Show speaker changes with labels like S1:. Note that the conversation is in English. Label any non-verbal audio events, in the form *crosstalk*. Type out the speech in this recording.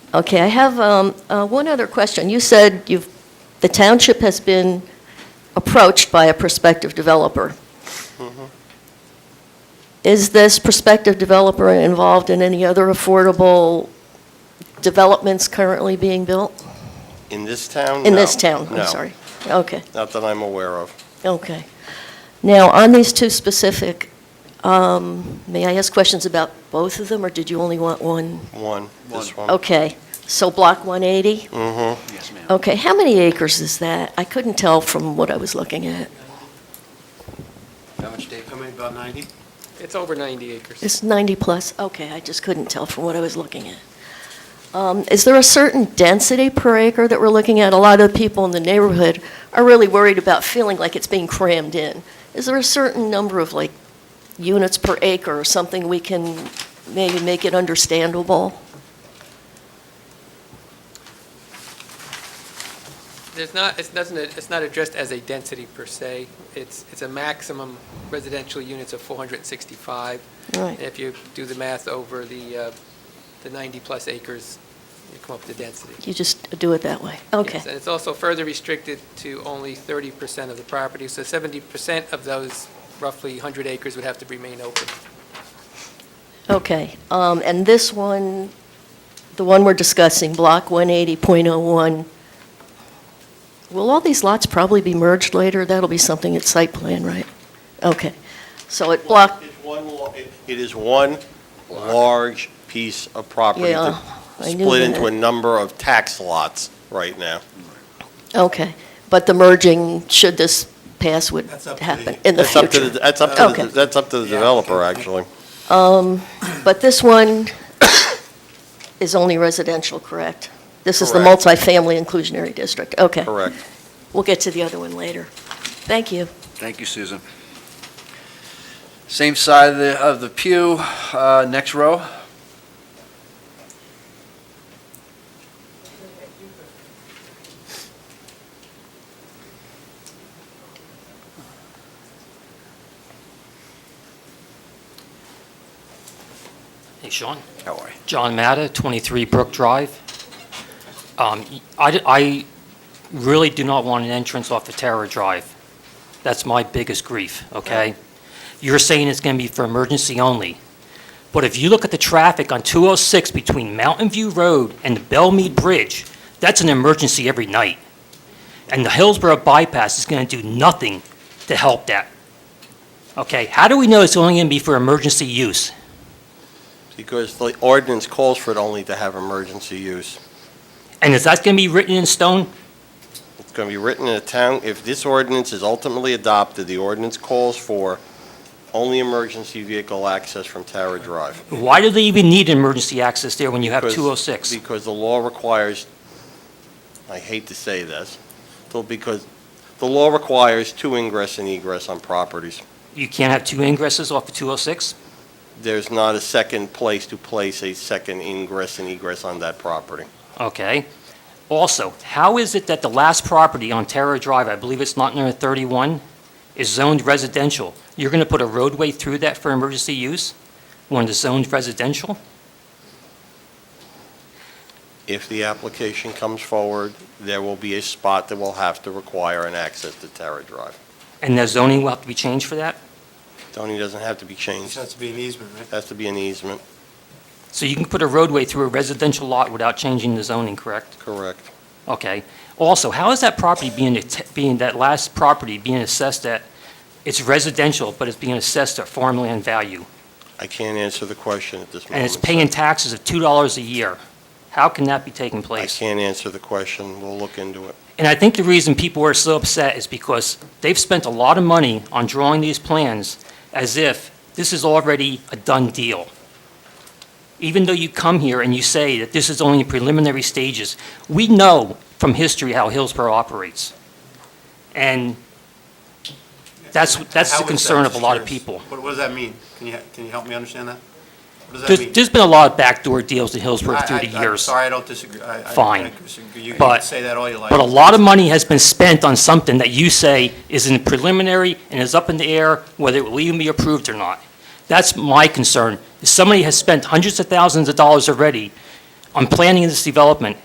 S1: Okay, I have um, uh, one other question. You said you've, the township has been approached by a prospective developer.
S2: Mm-hmm.
S1: Is this prospective developer involved in any other affordable developments currently being built?
S2: In this town?
S1: In
S2: No.
S1: this town?
S2: No,
S1: I'm sorry. Okay,
S2: not that I'm aware of.
S1: okay. Now, on these two specific, um, may I ask questions about both of them, or did you only want one?
S2: One, this one.
S1: Okay, so Block 180?
S2: Mm-hmm.
S3: Yes, ma'am.
S1: Okay, how many acres is that? I couldn't tell from what I was looking at.
S3: How much, Dave? How many, about 90?
S4: It's over 90 acres.
S1: It's 90 plus, okay, I just couldn't tell from what I was looking at. Um, Is there a certain density per acre that we're looking at? A lot of people in the neighborhood are really worried about feeling like it's being crammed in. Is there a certain number of like units per acre or something we can maybe make it understandable?
S4: There's not, it doesn't, it's not addressed as a density per se. It's, it's a maximum residential units of 465. And
S1: Right,
S4: if you do the math over the, uh, the 90-plus acres, you come up to density.
S1: you just do it that way, okay.
S4: Yes, And it's also further restricted to only 30% of the property, so 70% of those roughly 100 acres would have to remain open.
S1: Okay, um, and this one, the one we're discussing, Block 180.01, will all these lots probably be merged later? That'll be something at site plan, right? Okay, so at Block,
S2: It's one, lo- it it is one large piece of property
S1: yeah,
S2: that's
S1: I knew
S2: split into a
S1: that.
S2: number of tax lots right now.
S1: Okay, but the merging, should this pass, would
S5: That's up to
S1: happen
S5: *laughs* the-
S1: in the
S2: That's up to the,
S1: future?
S2: that's up to,
S1: Okay.
S2: the- that's up to the
S5: Yeah.
S1: *laughs*
S2: developer, actually.
S1: Um, But this one *coughs* is only residential, correct? This is the
S2: Correct.
S1: multifamily inclusionary district, okay.
S2: Correct.
S1: We'll get to the other one later. Thank you.
S3: Thank you, Susan. Same side of the, of the pew, uh, next row.
S6: Hey, Sean.
S3: How are you?
S6: John Matta, 23 Brook Drive. Um, I I really do not want an entrance off of Terra Drive. That's my biggest grief, okay? You're saying it's going to be for emergency only, but if you look at the traffic on 206 between Mountain View Road and the Bellmead Bridge, that's an emergency every night. And the Hillsborough bypass is going to do nothing to help that. Okay, how do we know it's only going to be for emergency use?
S2: Because the ordinance calls for it only to have emergency use.
S6: And is that going to be written in stone?
S2: It's going to be written in a town, if this ordinance is ultimately adopted, the ordinance calls for only emergency vehicle access from Tara Drive.
S6: Why do they even need emergency access there when you have
S2: Because-
S6: 206?
S2: Because the law requires, I hate to say this, though, because the law requires two ingress and egress on properties.
S6: You can't have two oh ingresses off of 206?
S2: There's not a second place to place a second ingress and egress on that property.
S6: Okay. Also, how is it that the last property on Terra Drive, I believe it's lot number 31, is zoned residential? You're going to put a roadway through that for emergency use when it's zoned residential?
S2: If the application comes forward, there will be a spot that will have to require an access to Tara Drive.
S6: And the zoning will have to be changed for that?
S2: Tony doesn't have to be
S5: This
S2: changed.
S5: has to be an easement, right?
S2: Has to be an easement,
S6: So you can put a roadway through a residential lot without changing the zoning, correct?
S2: correct.
S6: Okay. Also, how is that property being, att- being, that last property being assessed at, it's residential, but it's being assessed at farmland value?
S2: I can't answer the question at this moment.
S6: And it's paying taxes of $2 a year. How can that be taking
S2: I
S6: place?
S2: can't answer the question. We'll look into it.
S6: And I think the reason people are so upset is because they've spent a lot of money on drawing these plans as if this is already a done deal. Even though you come here and you say that this is only preliminary stages, we know from history how Hillsborough operates. And that's, that's
S5: How
S6: the
S5: is that?
S6: concern of a
S5: Just
S6: lot of
S5: curious.
S6: people.
S5: What, what does that mean? Can you, can you help me understand that? What does
S6: There's,
S5: that mean?
S6: there's been a lot of backdoor deals in Hillsborough
S5: I-
S6: through
S5: I-
S6: the
S5: I'm
S6: years.
S5: sorry, I don't disagree. I- I- I
S6: Fine.
S5: disagree. You can
S6: But-
S5: say that all you like.
S6: But a lot of money has been spent on something that you say is in preliminary and is up in the air, whether it will even be approved or not. That's my concern. Somebody has spent hundreds of thousands of dollars already I'm planning this development,